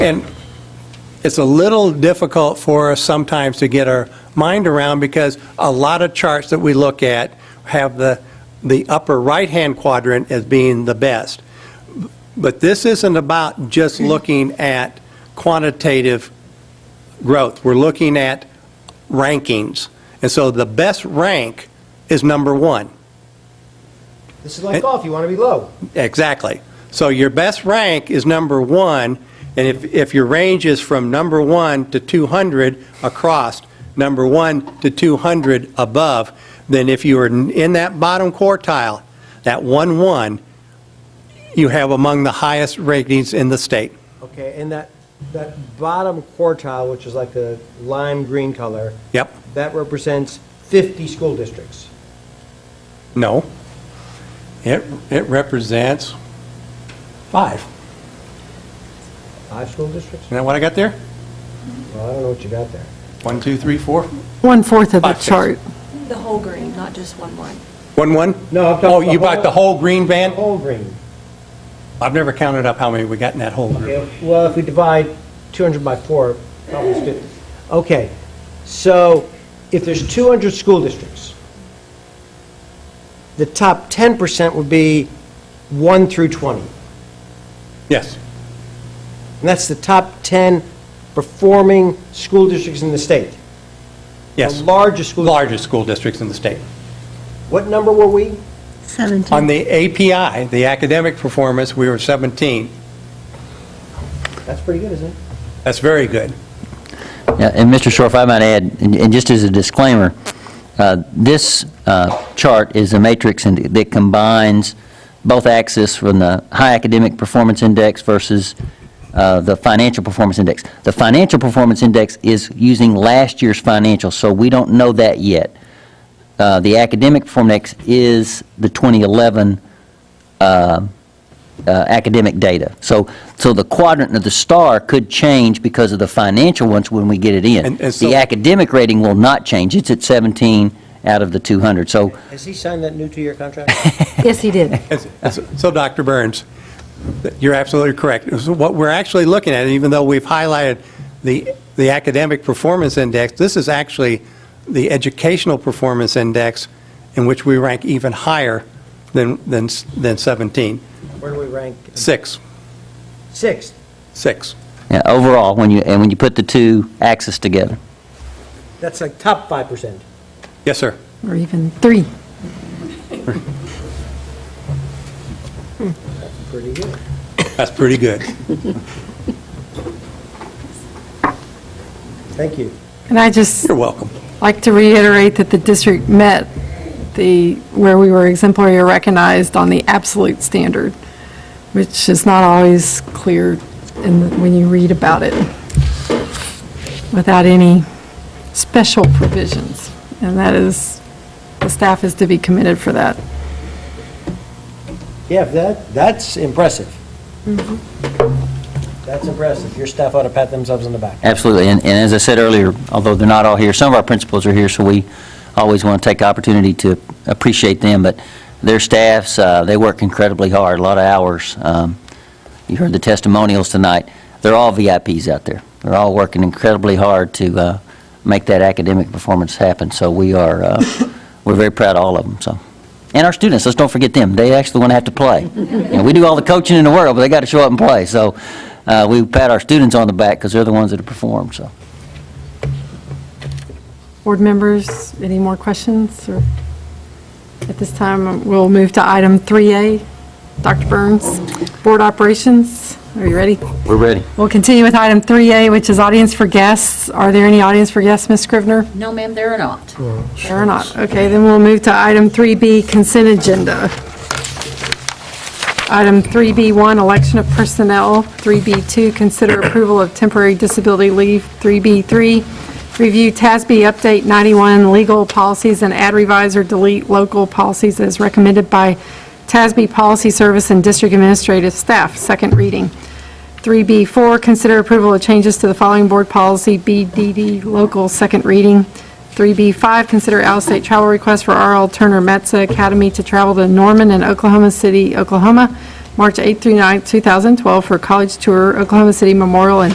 And it's a little difficult for us sometimes to get our mind around because a lot of charts that we look at have the, the upper right-hand quadrant as being the best. But this isn't about just looking at quantitative growth. We're looking at rankings. And so the best rank is number one. This is like golf, you want to be low. Exactly. So your best rank is number one, and if, if your range is from number one to 200 across, number one to 200 above, then if you are n- in that bottom quartile, that one, one, you have among the highest ratings in the state. Okay, and that, that bottom quartile, which is like the lime green color, Yep, that represents 50 school districts. no. It, it represents five. Isn't Five school districts? that what I got there? Well, I don't know what you got there. One, two, three, four? One-fourth of the Five, six. chart. The whole green, not just one one. One, one? No, I'm talking Oh, the you bought whole- the whole green van? Whole green. I've never counted up how many we got in that whole group. Yeah, Well, if we divide 200 by four, almost 50. Okay, so if there's 200 school districts, the top 10% would be 1 through 20. Yes, And that's the top 10 performing school districts in the state. yes. The largest school. Largest school districts in the state. What number were we? On the API, the academic performance, we were 17. That's pretty good, isn't it? That's very good. Yeah, And Mr. Shore, if I might add, and and just as a disclaimer, uh, this uh, chart is a matrix and that combines both axes from the high academic performance index versus uh, the financial performance index. The financial performance index is using last year's financials, so we don't know that yet. Uh, The academic performance index is the 2011 uh, academic data. So, so the quadrant of the star could change because of the financial ones when we get it in. And- and so- The academic rating will not change. It's at 17 out of the 200. So Has he signed that new two-year contract? Yes, he did. It's- it's- So, Dr. Burns, you're absolutely correct. It's What we're actually looking at, even though we've highlighted the, the academic performance index, this is actually the educational performance index in which we rank even higher than, than, than 17. Where do we rank? Six, Sixth. six. yeah, overall, when you, and when you put the two axes together. That's like top 5%. Yes, sir. Or even three. Pretty good. That's pretty good. Thank you. And I just You're welcome. like to reiterate that the district met the, where we were exemplary or recognized on the absolute standard, which is not always clear in, when you read about it, without any special provisions. And that is, the staff is to be commended for that. Yeah, that, that's impressive. That's impressive. Your staff ought to pat themselves on the back. Absolutely. And, and as I said earlier, although they're not all here, some of our principals are here, so we always want to take the opportunity to appreciate them. But their staffs, uh, they work incredibly hard, a lot of hours. Um, You heard the testimonials tonight. They're all VIPs out there. They're all working incredibly hard to uh, make that academic performance happen. So we are, uh, we're very proud of all of them, so. And our students, let's don't forget them. They actually want to have to play. And we do all the coaching in the world, but they got to show up and play. So uh, we pat our students on the back because they're the ones that have performed, so. Board members, any more questions? or- At this time, we'll move to item 3A. Dr. Burns, Board Operations, are you ready? We're ready. We'll continue with item 3A, which is audience for guests. Are there any audience for guests, Ms. Scrivener? No, ma'am, there are not. There are not. Okay, then we'll move to item 3B, Consent Agenda. Item 3B1, Election of Personnel. 3B2, Consider Approval of Temporary Disability Leave. 3B3, Review TASB Update 91 Legal Policies and Add Revise or Delete Local Policies as recommended by TASB Policy Service and District Administrative Staff. Second reading. 3B4, consider approval of changes to the following board policy, BDD, local, second reading. 3B5, consider out-of-state travel request for R.L. Turner Metza Academy to travel to Norman and Oklahoma City, Oklahoma, March 8 through 9, 2012, for a college tour, Oklahoma City Memorial and